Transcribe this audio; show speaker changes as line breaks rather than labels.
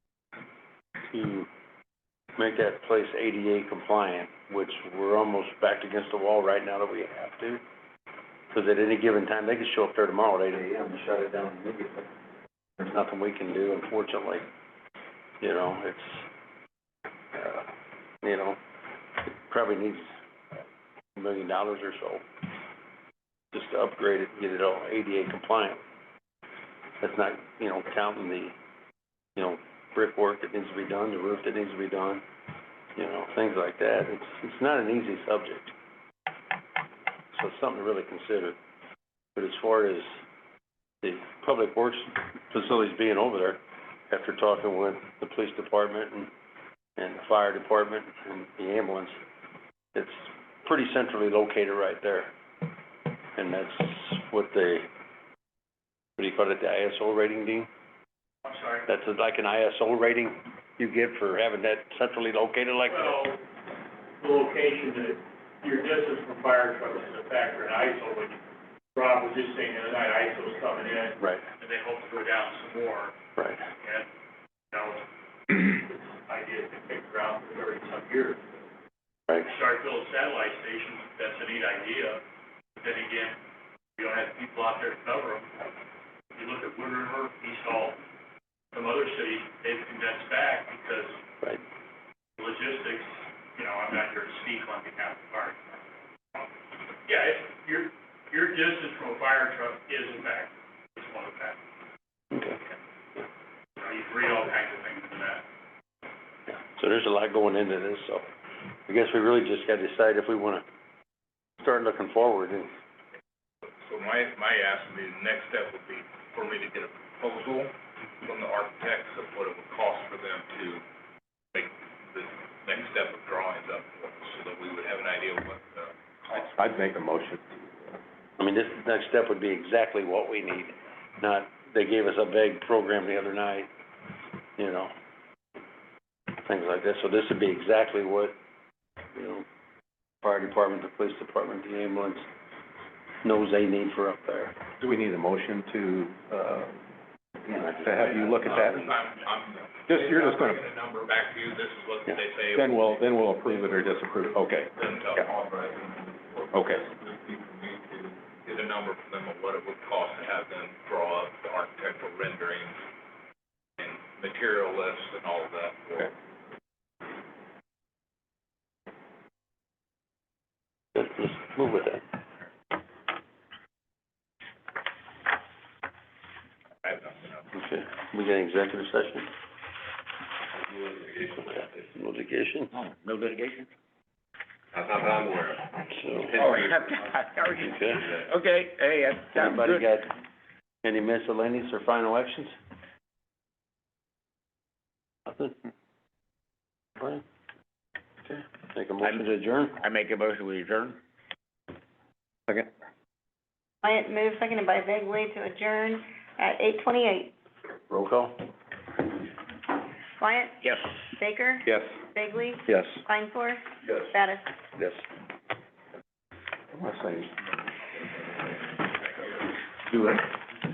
to make that place ADA compliant, which we're almost backed against the wall right now that we have to. Cause at any given time, they could show up there tomorrow at eight AM and shut it down immediately. There's nothing we can do, unfortunately. You know, it's, uh, you know, it probably needs a million dollars or so just to upgrade it, get it all ADA compliant. That's not, you know, counting the, you know, brickwork that needs to be done, the roof that needs to be done, you know, things like that. It's, it's not an easy subject. So it's something to really consider. But as far as the public works facilities being over there, after talking with the police department and, and the fire department and the ambulance, it's pretty centrally located right there. And that's what they, what do you call it, the ISO rating, Dean?
I'm sorry.
That's like an ISO rating you get for having that centrally located like that?
Well, the location, that your distance from fire trucks is a factor in ISO, which Rob was just saying the other night, ISO's coming in,
Right,
and they hope to go down some more,
right.
and, you know, it's ideas to pick around for thirty some years.
Right.
Start building satellite stations, that's a neat idea, but then again, you don't have people out there to cover them. You look at Wood River, East Hall, some other cities, they've condensed back because
Right.
logistics, you know, I'm not here to speak on behalf of the fire. department. Yeah, it's, your, your distance from a fire truck is in fact, is one of the factors.
Okay.
You know, you can read all kinds of things in that.
Yeah. So there's a lot going into this, so I guess we really just gotta decide if we wanna start looking forward and,
So my, my ask would be, the next step would be for me to get a proposal from the architects of what it would cost for them to make the next step of drawings up, so that we would have an idea of what uh, the cost.
I'd make a motion.
I mean, this next step would be exactly what we need, not, they gave us a vague program the other night, you know, things like this. So this would be exactly what, you know, fire department, the police department, the ambulance knows they need for up there.
Do we need a motion to, uh, to have you look at
Uh, I'm,
that?
I'm.
Just, you're just
I'm
gonna,
bringing a number back to you, this is what
Yeah.
they say.
then we'll, then we'll approve it or disapprove, okay.
Then tell
Yeah.
Paul, right?
Okay.
It would be for me to Get a number from them of what it would cost to have them draw up the architectural renderings and material lists and all of that.
Okay.
Let's, let's move with that.
I have nothing else.
Okay, we got an executive session? No litigation,
Oh, No litigation?
That's not that I'm aware of.
so,
Oh, okay.
okay.
Okay, hey, that's
Anybody got
good.
any miscellaneous or final actions? Nothing? Brian? Okay, make a motion to adjourn?
I make a motion, we adjourn. Second.
Wyatt moved, seconded by Bagley to adjourn at eight twenty-eight.
Roll call?
Wyatt,
Yes.
Baker,
Yes.
Bagley,
Yes.
Kleinfor,
Yes.
Bettis.
Yes.
I wanna say- Do it.